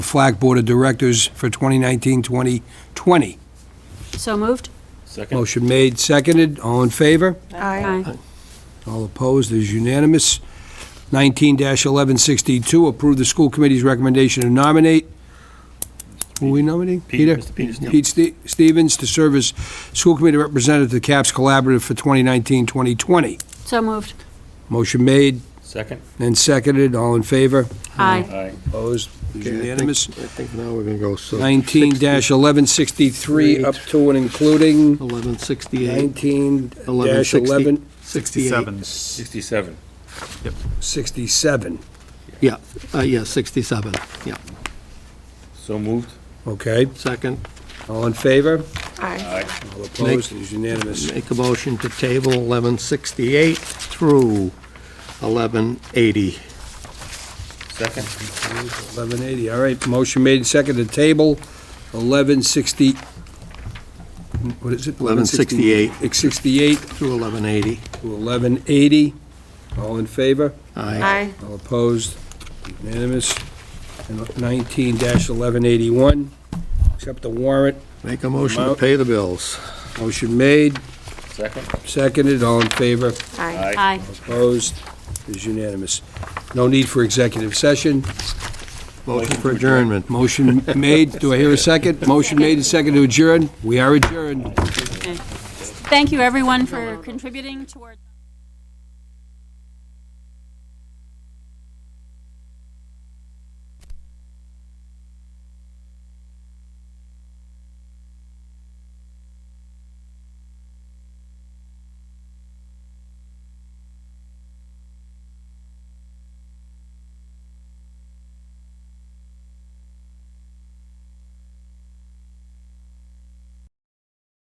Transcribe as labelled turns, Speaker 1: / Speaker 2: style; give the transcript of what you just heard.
Speaker 1: Flack Board of Directors for 2019-2020.
Speaker 2: So moved?
Speaker 3: Second.
Speaker 1: Motion made, seconded, all in favor?
Speaker 2: Aye.
Speaker 1: All opposed, it is unanimous. 19-1162, approve the school committee's recommendation to nominate, who are we nominating?
Speaker 3: Pete- Mr. Peter Stevens.
Speaker 1: Pete Ste- Stevens to serve as school committee representative to the CAPS Collaborative for 2019-2020.
Speaker 2: So moved?
Speaker 1: Motion made
Speaker 3: Second.
Speaker 1: and seconded, all in favor?
Speaker 2: Aye.
Speaker 3: Aye.
Speaker 1: Opposed, it is
Speaker 4: Okay, I think-
Speaker 1: unanimous.
Speaker 4: I think now we're going to go so.
Speaker 1: 19-1163, up to and including
Speaker 4: 1168,
Speaker 1: 19-1167.
Speaker 4: 67.
Speaker 3: 67.
Speaker 4: Yeah, uh, yeah, 67, yeah.
Speaker 3: So moved.
Speaker 1: Okay,
Speaker 4: Second,
Speaker 1: all in favor?
Speaker 2: Aye.
Speaker 3: Aye.
Speaker 1: All opposed, it is unanimous.
Speaker 4: make a motion to table 1168 through 1180.
Speaker 3: Second.
Speaker 1: 1180, all right, motion made, second to table, 1160, what is it?
Speaker 4: 1168.
Speaker 1: 68
Speaker 4: Through 1180.
Speaker 1: to 1180, all in favor?
Speaker 4: Aye.
Speaker 2: Aye.
Speaker 1: All opposed, unanimous. And 19-1181, accept the warrant,
Speaker 4: Make a motion to pay the bills.
Speaker 1: motion made,
Speaker 3: Second.
Speaker 1: seconded, all in favor?
Speaker 2: Aye.
Speaker 1: Opposed, it is unanimous. No need for executive session.
Speaker 4: Motion for adjournment.
Speaker 1: Motion made, do I hear a second? Motion made and second to adjourn, we are adjourned.
Speaker 2: Thank you, everyone, for contributing toward.